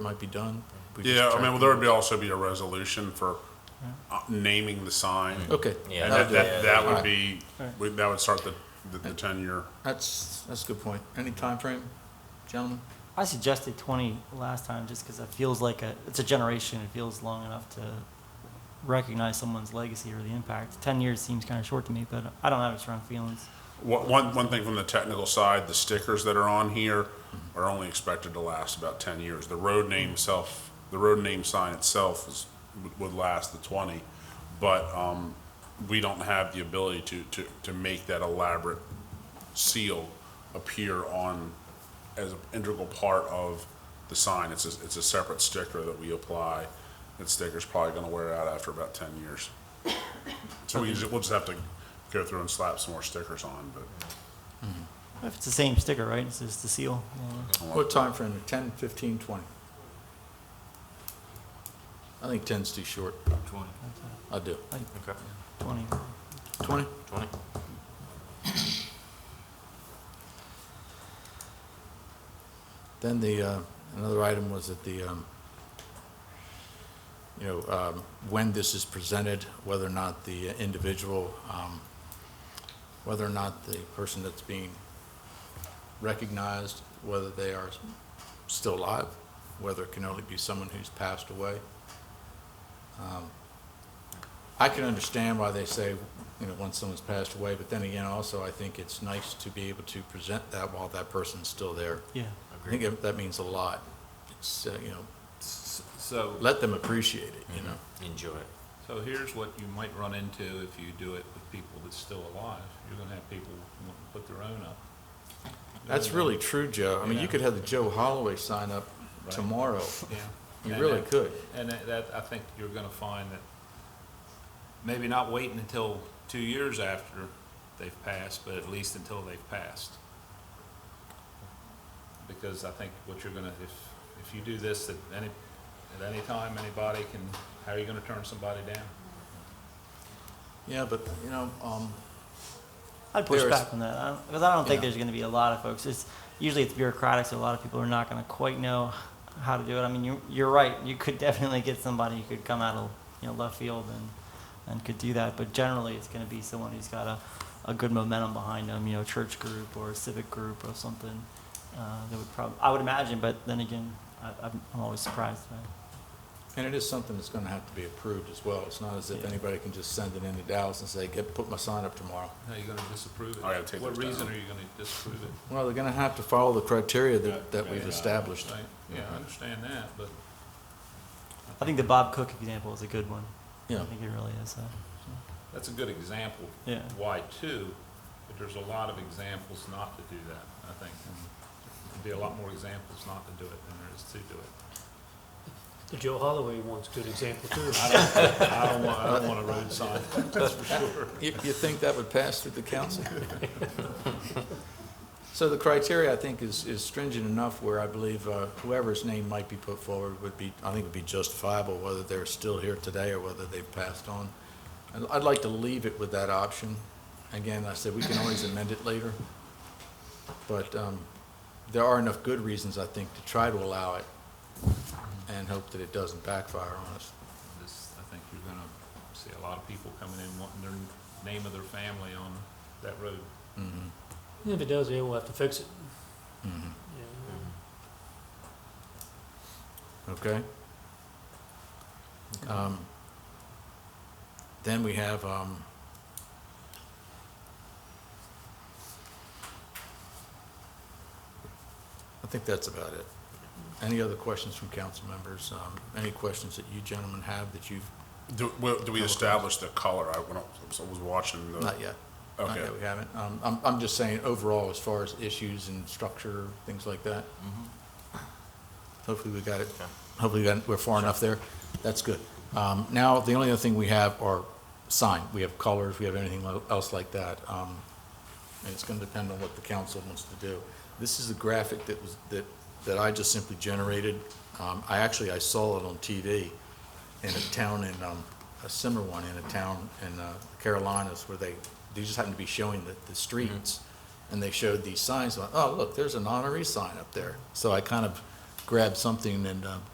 might be done. We just Yeah, I track mean, well, them. there would be also be a resolution for uh, naming the sign. Okay. Yeah, And that'll that, do that, it. that Alright. would be, we- that would start the, the- the ten-year. That's, that's a good point. Any time frame, gentlemen? I suggested 20 last time just because it feels like a, it's a generation. It feels long enough to recognize someone's legacy or the impact. 10 years seems kind of short to me, but I don't have strong feelings. One, one, one thing from the technical side, the stickers that are on here are only expected to last about ten years. The road name self, the road name sign itself is, would- would last the twenty, but, um, we don't have the ability to, to, to make that elaborate seal appear on, as an integral part of the sign. It's a, it's a separate sticker that we apply. That sticker's probably gonna wear out after about ten years. So we, just- we'll just have to go through and slap some more stickers on, but. If it's the same sticker, right? It's just the seal. Yeah. What time frame? 10, 15, 20? I think 10's too short. 20. I do. Like Okay. 20. 20? 20. Then the, uh, another item was that the, um, you know, um, when this is presented, whether or not the individual, um, whether or not the person that's being recognized, whether they are still alive, whether it can only be someone who's passed away. Um, I can understand why they say, you know, once someone's passed away, but then again, also, I think it's nice to be able to present that while that person's still there. Yeah. I think that- that means a lot. It's, uh, you know, So, let them appreciate it, you know? Enjoy it. so here's what you might run into if you do it with people that's still alive. You're gonna have people want to put their own up. That's really true, Joe. I mean, you could have the Joe Holloway sign up Right. tomorrow. Yeah. You And really that- could. And that, that, I think you're gonna find that maybe not waiting until two years after they've passed, but at least until they've passed. Because I think what you're gonna, if, if you do this at any, at any time, anybody can, how are you gonna turn somebody down? Yeah, but, you know, um, I'd push There is- back on that because I don't think Yeah. there's going to be a lot of folks. It's usually it's bureaucratic, so a lot of people are not going to quite know how to do it. I mean, you, you're right. You could definitely get somebody who could come out of you know left field and and could do that, but generally it's going to be someone who's got a, a good momentum behind them. You know, church group or civic group or something. Uh, that would probably I would imagine, but then again, I, I'm, I'm always surprised. By and it is something that's gonna have to be approved as well. It's not as if Yeah. anybody can just send it into Dallas and say, get, put my sign up tomorrow. How are you gonna disapprove it? I gotta take What those down. reason are you gonna disapprove it? Well, they're gonna have to follow the criteria that, that Yeah, we've yeah, I established. understand. Yeah, I understand that, but I think the Bob Cook example is a good one. Yeah, I think it really is. Uh, that's a good example. Yeah. Why two, but there's a lot of examples not to do that, I think. and There'd be a lot more examples not to do it than there is to do it. The Joe Holloway one's a good example too. I don't, I don't want, I don't want a road sign, that's for sure. you, you think that would pass through the council? So the criteria, I think, is, is stringent enough where I believe uh, whoever's name might be put forward would be, I think would be justifiable, whether they're still here today or whether they've passed on. And I'd like to leave it with that option. Again, I said, we can always amend it later. But um, there are enough good reasons, I think, to try to allow it and hope that it doesn't backfire on us. This, I think you're gonna see a lot of people coming in wanting their name of their family on that road. Mm-hmm. If it does, yeah, we'll have to fix it. Mhm. Yeah. Okay? Um, Then we have, um, I think that's about it. Any other questions from council members? Um, Any questions that you gentlemen have that you've, Do, well, do we establish the color? I, when I was- I was watching the. not yet? Not Okay. yet, we haven't. Um, I'm, I'm just saying overall, as far as issues and structure, things like that. Mm-hmm. Hopefully we got it, hopefully we got- we're far enough there. That's good. Um, Now, the only other thing we have are sign. We have colors, we have anything lo- else like that. Um, And it's going to depend on what the council wants to do. This is a graphic that was, that, that I just simply generated. Um, I actually, I saw it on TV in a town in, um, a similar one in a town in uh, Carolinas where they, they just happened to be showing the, the streets. And they showed these signs, like, oh, look, there's an honorary sign up there. So I kind of grabbed something and, um,